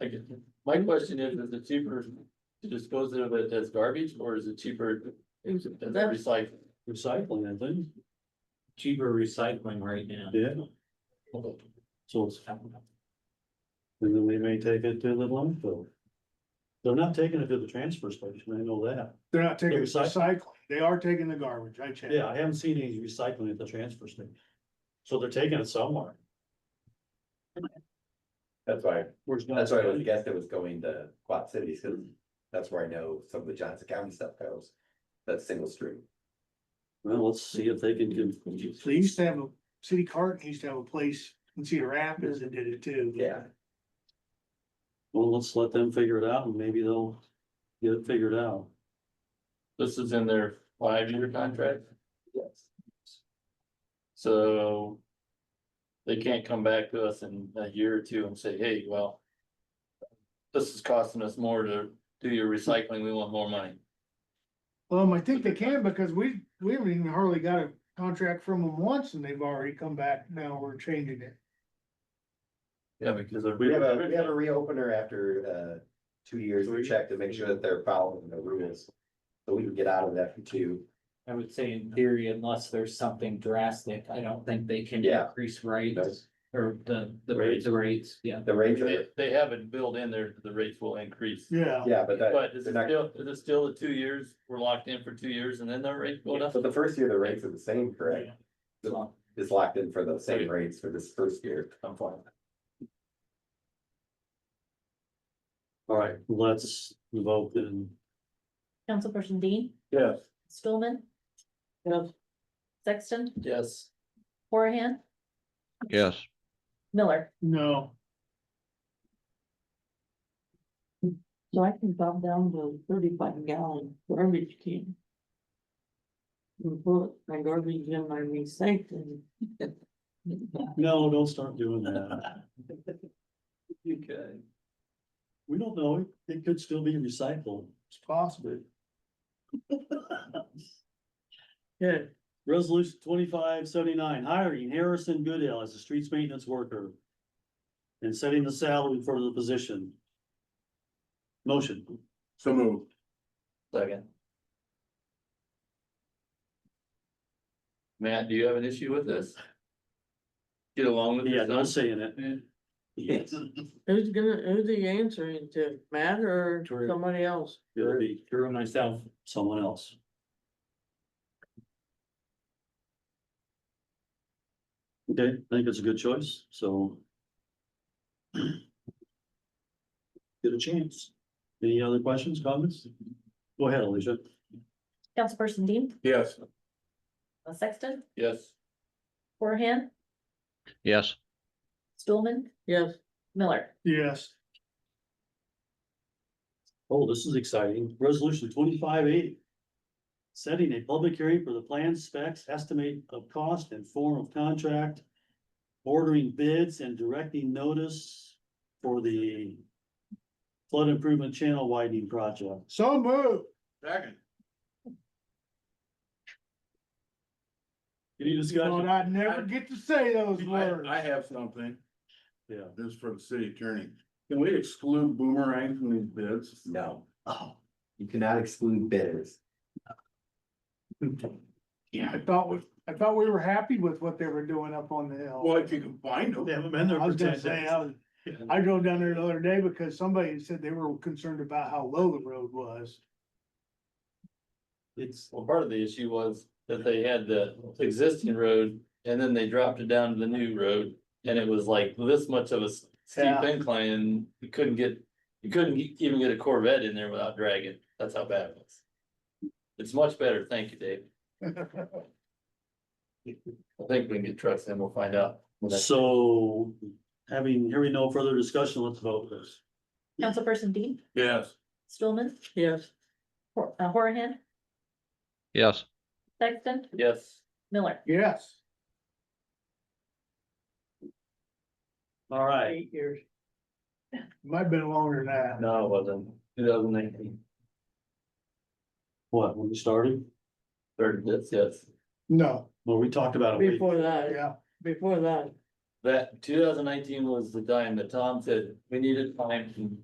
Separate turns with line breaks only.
I get, my question is, is it cheaper to dispose of it as garbage or is it cheaper as recycling?
Recycling, I think,
cheaper recycling right now.
yeah, so it's. And then we may take it to the landfill. They're not taking it to the transfer station, I know that.
They're not taking
They're
the
recycling.
recycling, they are taking the garbage, I checked.
Yeah, I haven't seen any recycling at the transfer station. So they're taking it somewhere.
That's why,
Where's not-
that's why I was guessed it was going to Quad Cities, because that's where I know some of the Johnson County stuff goes. That's single stream.
Well, let's see if they can. con-
So they used to have a city cart, they used to have a place in Cedar Rapids that did it too.
Yeah,
Well, let's let them figure it out and maybe they'll get it figured out.
This is in their five-year contract,
yes.
so. They can't come back to us in a year or two and say, hey, well. This is costing us more to do your recycling, we want more money.
Um, I think they can because we, we haven't even hardly got a contract from them once and they've already come back, now we're changing it.
Yeah, because. of-
We have a, we have a reopener after uh two years, we check to make sure that they're following the rules. So we can get out of that for two,
I would say in theory, unless there's something drastic, I don't think they can
Yeah.
increase
you know,
rates or the, the
Rates.
rates, the rates, yeah.
the rates
They,
are,
they have it built in there, that the rates will increase.
Yeah.
yeah, but that.
But is
they're
it still,
not-
is it still the two years, we're locked in for two years and then the rate go up?
But the first year, the rates are the same, correct?
So,
It's locked in for the same
Right.
rates for this first year.
I'm fine.
All right, let's vote and
Councilperson Dean,
Yes.
Stulman. Sexton,
Yes.
Horahan.
yes.
Miller,
No,
So I can drop down to thirty-five gallon garbage can. And put my garbage in my recycling.
No, don't start doing that. You could. We don't know, it it could still be recycled.
it's possible.
Okay, resolution twenty-five seventy-nine, hiring Harrison Goodell as a streets maintenance worker. And setting the salary for the position. Motion,
So moved.
Second. Matt, do you have an issue with this? Get along with
yeah,
this?
not saying it. Yes.
Who's gonna, who's he answering to, Matt or
Drew.
somebody else?
It'll be
Drew and myself,
someone else. Okay, I think it's a good choice, so. Get a chance. Any other questions, comments? Go ahead, Alicia.
Councilperson Dean,
Yes.
uh, Sexton,
Yes.
Horahan,
Yes.
Stulman,
Yes,
Miller.
Yes.
Oh, this is exciting. Resolution twenty-five eighty. Setting a public hearing for the plan specs, estimate of cost and form of contract. Ordering bids and directing notice for the. Flood improvement channel widening project.
So moved.
Second.
Any
Thought
discussion?
I'd never get to say those
I,
words.
I have something,
Yeah.
this is for the city attorney. Can we exclude boomerang from these bids?
No. Oh. You cannot exclude bidders.
I thought we, I thought we were happy with what they were doing up on the hill.
Well, if you can find them.
They haven't been there
I
for
was
ten
gonna say,
days.
I was, I drove down there the other day because somebody said they were concerned about how low the road was.
It's,
Well, part of the issue was that they had the existing road and then they dropped it down to the new road. And it was like this much of a s- steep
Yeah.
incline and you couldn't get, you couldn't e- even get a Corvette in there without dragging. That's how bad it was. It's much better. Thank you, Dave. I think we can get trucks and we'll find out.
so having, hearing no further discussion, let's vote this.
Councilperson Dean,
Yes.
Stulman,
yes.
Hor- uh, Horahan,
Yes.
Sexton,
Yes.
Miller.
Yes.
All right.
Eight years.
Might have been longer than that.
No, it wasn't. Two thousand nineteen.
What, when we started?
Third, that's, yes.
No,
Well, we talked about it.
Before that,
yeah,
before that.
That two thousand nineteen was the time that Tom said we needed time to